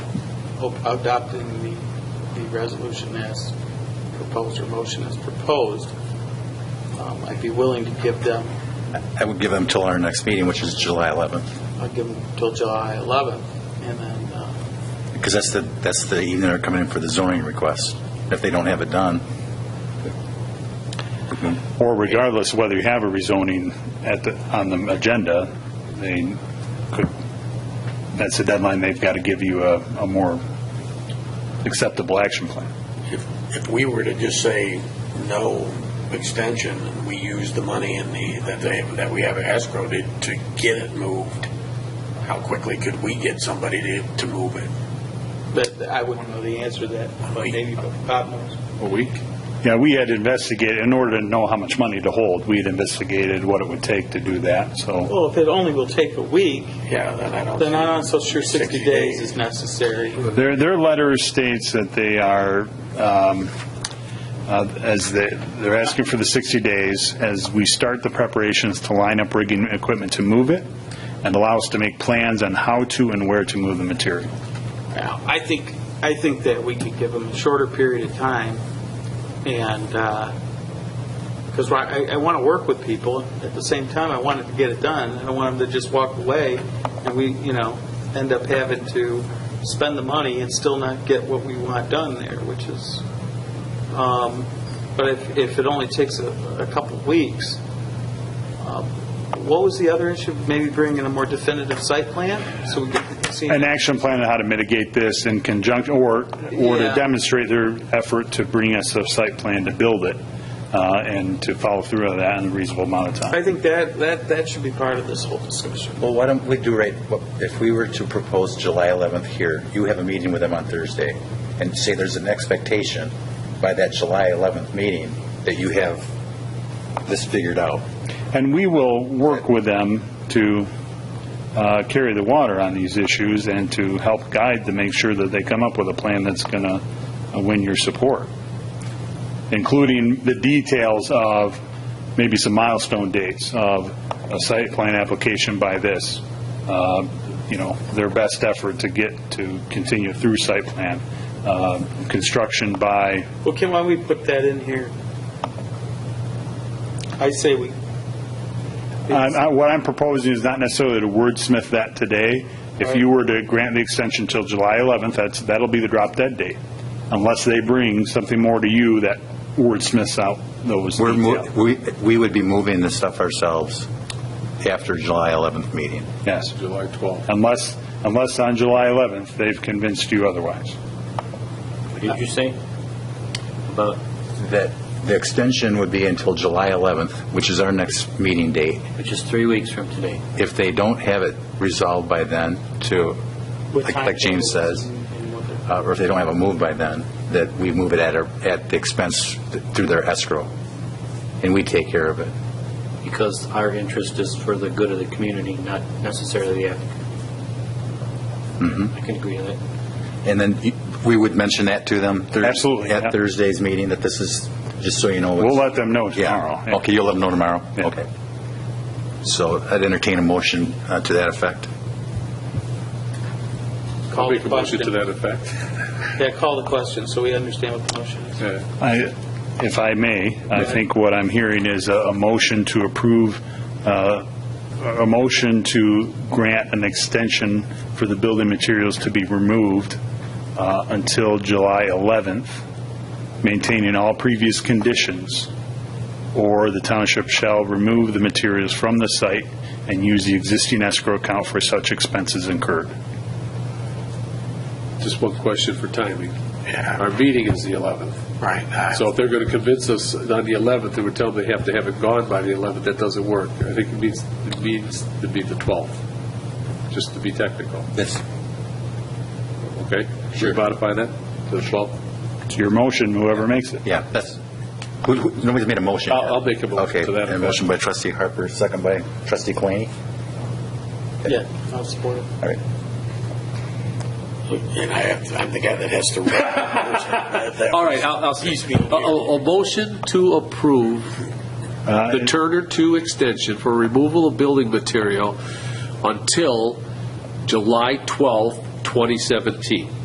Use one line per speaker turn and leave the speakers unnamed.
op- adopting the, the resolution as proposed, or motion as proposed, um, I'd be willing to give them,
I would give them till our next meeting, which is July 11th,
I'll give them till July 11th, and then, uh,
because that's the, that's the evening they're coming in for the zoning request. If they don't have it done,
Or regardless of whether you have a rezoning at the, on the agenda, they could, that's a deadline, they've got to give you a, a more acceptable action plan.
If, if we were to just say no extension, and we use the money in the, that they, that we have escrow to, to get it moved, how quickly could we get somebody to, to move it?
but I wouldn't know the answer to that, but maybe Bob knows.
A week? Yeah, we had investigated, in order to know how much money to hold, we had investigated what it would take to do that, so.
Well, if it only will take a week,
Yeah, then I don't.
then I'm not so sure 60
60
days
days.
is necessary.
Their, their letter states that they are, um, uh, as they, they're asking for the 60 days, as we start the preparations to line up rigging equipment to move it, and allow us to make plans on how to and where to move the material.
Now, I think, I think that we could give them a shorter period of time, and, because I, I want to work with people, at the same time, I want to get it done, I don't want them to just walk away, and we, you know, end up having to spend the money and still not get what we want done there, which is, um, but if, if it only takes a, a couple of weeks, um, what was the other issue? Maybe bring in a more definitive site plan, so we can see.
An action plan on how to mitigate this in conjunction, or, or
Yeah.
to demonstrate their effort to bring us a site plan to build it, uh, and to follow through on that in a reasonable amount of time.
I think that, that, that should be part of this whole discussion.
well, why don't we do right, what- if we were to propose July 11th here, you have a meeting with them on Thursday, and say there's an expectation by that July 11th meeting that you have this figured out.
And we will work with them to uh, carry the water on these issues and to help guide to make sure that they come up with a plan that's going to win your support, including the details of maybe some milestone dates of a site plan application by this, uh, you know, their best effort to get, to continue through site plan, uh, construction by,
Well, Kim, why don't we put that in here? I say we.
I'm- I- What I'm proposing is not necessarily to wordsmith that today. If you were to grant the extension till July 11th, that's, that'll be the drop dead date, unless they bring something more to you that wordsmiths out those
We're, mo-
details.
we, we would be moving the stuff ourselves after July 11th meeting.
Yes. July 12th. Unless, unless on July 11th, they've convinced you otherwise.
What did you say about,
That the extension would be until July 11th, which is our next meeting date.
which is three weeks from today?
If they don't have it resolved by then to,
with
like like James
timetables
says,
and- and what the-
uh, or if they don't have a move by then, that we move it at, our- at the expense th- through their escrow, and we take care of it.
Because our interest is for the good of the community, not necessarily the applicant. I can agree with that.
And then y- we would mention that to them. Thurs-
Absolutely, yeah.
At Thursday's meeting, that this is, just so you know. it's-
We'll let them know tomorrow.
Yeah, okay, you'll let them know tomorrow?
Yeah.
Okay. So I'd entertain a motion uh, to that effect.
Call the
Make a motion to
question.
that effect.
Yeah, call the question, so we understand what the motion is.
Yeah.
I- If I may, I think what I'm hearing is a a motion to approve, uh, a motion to grant an extension for the building materials to be removed uh, until July 11th, maintaining all previous conditions, or the township shall remove the materials from the site and use the existing escrow account for such expenses incurred.
Just one question for timing. Our meeting is the 11th.
Right. I-
So if they're going to convince us on the 11th, they would tell them they have to have it gone by the 11th, that doesn't work. I think it means, it means to be the 12th, just to be technical,
Yes.
okay? Sure. Modify that to the 12th?
It's your motion, whoever makes it.
Yeah, that's, who- who- nobody's made a motion.
I'll-
yet.
I'll make a motion
Okay,
to that
and a
effect.
motion by trustee Harper, second by trustee Kalani.
Yeah, I'll support it.
All right.
And I have, I'm the guy that has to. That
All
was-
right, I'll, I'll say,
He's
a,
being
a- a motion to approve the Turner Two extension for removal of building material until July twelfth, twenty seventeen.